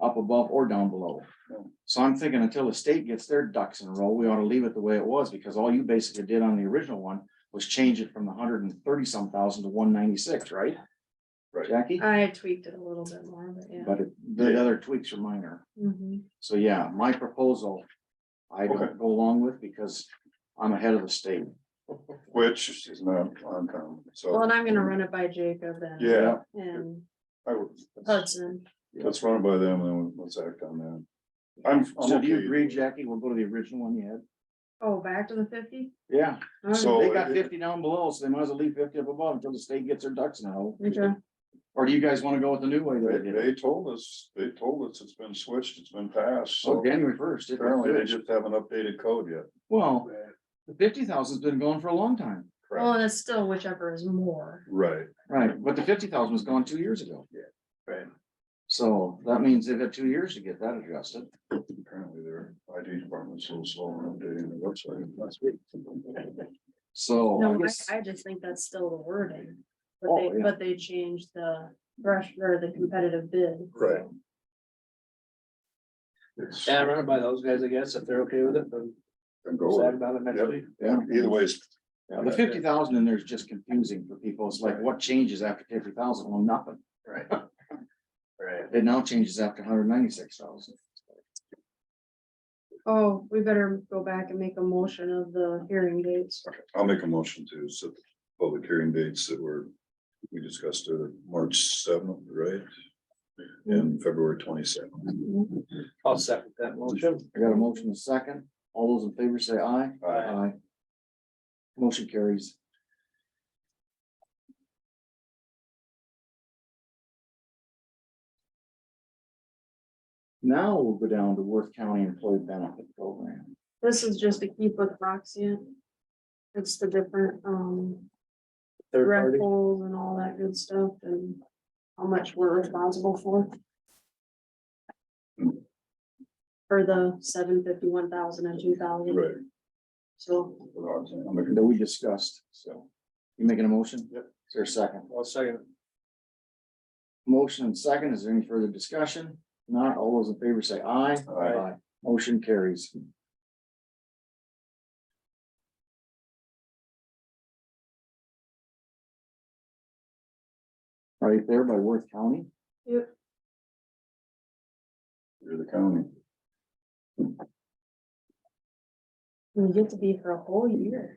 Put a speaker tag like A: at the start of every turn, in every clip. A: above or down below. So I'm thinking until the state gets their ducks in a row, we ought to leave it the way it was, because all you basically did on the original one was change it from the hundred and thirty some thousand to one ninety-six, right?
B: Right.
A: Jackie,
C: I had tweaked it a little bit more, but Uh, yeah.
A: but it- the other tweaks are minor.
C: Mhm.
A: So yeah, my proposal, I
B: Okay.
A: don't go along with because I'm ahead of the state.
B: which is not uncommon, so.
C: Well, and I'm gonna run it by Jacob and.
B: Yeah,
C: And
B: I would, let's-
C: Hudson.
B: let's run it by them and then let's act on that. I'm, I'm
A: So do you
B: okay.
A: agree, Jackie? We'll go to the original one you had.
C: Oh, back to the fifty?
A: Yeah,
B: So-
A: they got
B: it-
A: fifty down below, so they might as well leave fifty up above until the state gets their ducks in a row.
C: Okay.
A: Or do you guys wanna go with the new way that
B: They,
A: they did it?
B: they told us, they told us it's been switched, it's been passed,
A: Oh,
B: so
A: January first.
B: apparently they just haven't updated code yet.
A: Well, the fifty thousand's been going for a long time.
C: Well,
B: Correct.
C: and it's still whichever is more.
B: Right,
A: Right, but the fifty thousand was gone two years ago.
B: right.
A: So that means they've got two years to get that adjusted.
B: Apparently their ID department's a little slow on updating the website. That's
A: So Oh, I
C: No,
A: guess,
C: I, I just think that's still the wording. But
A: Oh,
C: they,
A: yeah.
C: but they changed the brush or the competitive bid.
B: Right. It's,
D: Yeah, run it by those guys, I guess, if they're okay with it, then
B: and go,
D: decide
B: with it.
D: about it next
B: Yep.
D: week.
B: yeah, either way, it's
A: yeah, the fifty thousand in there is just confusing for people. It's like, what changes after fifty thousand? Well, nothing.
D: Right. Right.
A: It now changes after hundred ninety-six thousand.
C: Oh, we better go back and make a motion of the hearing dates.
B: I'll make a motion to set the public hearing dates that were, we discussed, uh, March seventh, right? And February twenty-seventh.
D: I'll second that motion.
A: I got a motion in second. All those in favor say aye.
B: Aye.
A: Motion carries. Now we'll go down to Worth County Employee Benefit Program.
C: This is just to keep with Roxy. It's the different, um,
D: Third
C: rec
D: party,
C: pools and all that good stuff and how much we're responsible for. For the seven fifty, one thousand and two thousand,
B: Right.
C: so
B: I'll make a-
A: That we discussed.
B: So,
A: You making a motion?
D: Yep.
A: Is there a second?
D: I'll second. it.
A: Motion and second. Is there any further discussion? Not all those in favor say aye.
B: Aye.
A: Motion carries. Right there by Worth County.
B: you're the county.
C: we get to be for a whole year.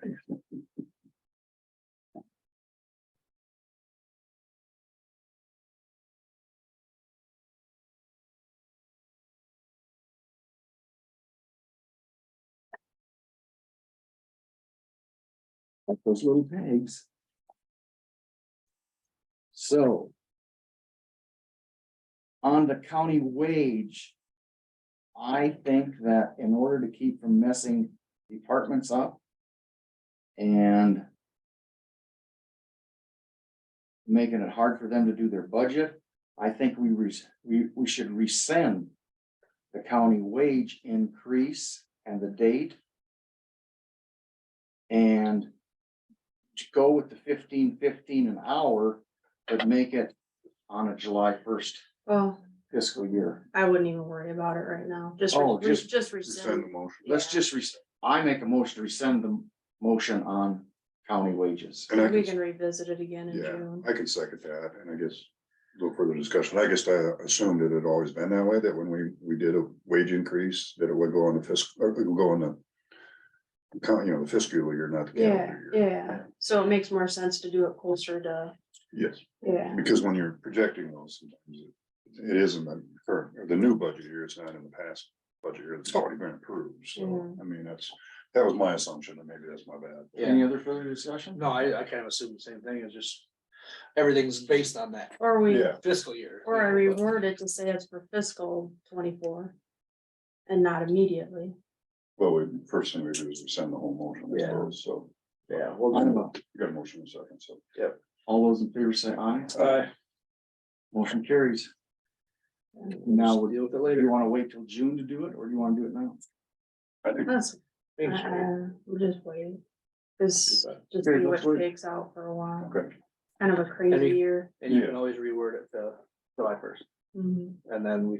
A: like those little tags. So. On the county wage. I think that in order to keep from messing departments up. And. Making it hard for them to do their budget, I think we res- we, we should rescind. The county wage increase and the date. And to go with the fifteen fifteen an hour, but make it on a July first
C: Well,
A: fiscal year.
C: I wouldn't even worry about it right now, just, re-
A: Oh,
C: re-
A: just-
C: just
B: Send the
C: rescind.
B: motion.
A: Let's
C: Yeah.
A: just, res- I make a motion to rescind the motion on county wages.
B: And I
C: We
B: can-
C: can revisit it again in
B: Yeah,
C: June.
B: I can second that, and I guess, a little further discussion, I guess I assumed it had always been that way, that when we, we did a wage increase, that it would go on the fiscal, or it would go on the. Count, you know, the fiscal year, not the
C: Yeah,
B: calendar year,
C: yeah, so it makes more sense to do it closer to,
B: yes,
C: yeah,
B: because when you're projecting those, sometimes it it isn't the current, or the new budget year, it's not in the past. Budget year, that's already been approved, so, I mean, that's, that was my assumption, and maybe that's my bad.
A: Any other further discussion?
D: No, I, I kind of assume the same thing, it's just, everything's based on that
C: or we,
B: Yeah,
D: fiscal year.
C: or I
D: you know, but-
C: reword it to say it's for fiscal twenty-four. And not immediately.
B: well, we, first thing we do is we send the whole motion, I
D: Yeah.
B: suppose, so,
D: Yeah.
A: I'm
D: well,
A: about-
B: you got a motion in a second, so.
A: All those in favor say aye.
D: Uh,
A: Motion carries. Now,
D: now
A: would
D: we'll deal with it
A: do
D: later.
A: you want to wait till June to do it or do you want to do it now?
B: I think
C: That's, uh,
D: Thanks, Jerry.
C: we're just waiting. This,
D: uh,
C: just
A: Very
C: see
A: much
C: what
A: waiting.
C: takes out for a while,
B: Okay,
C: kind of a crazy
D: Any-
C: year.
D: And you
B: Yeah.
D: can always reword it to July first,
C: Mhm.
D: and then we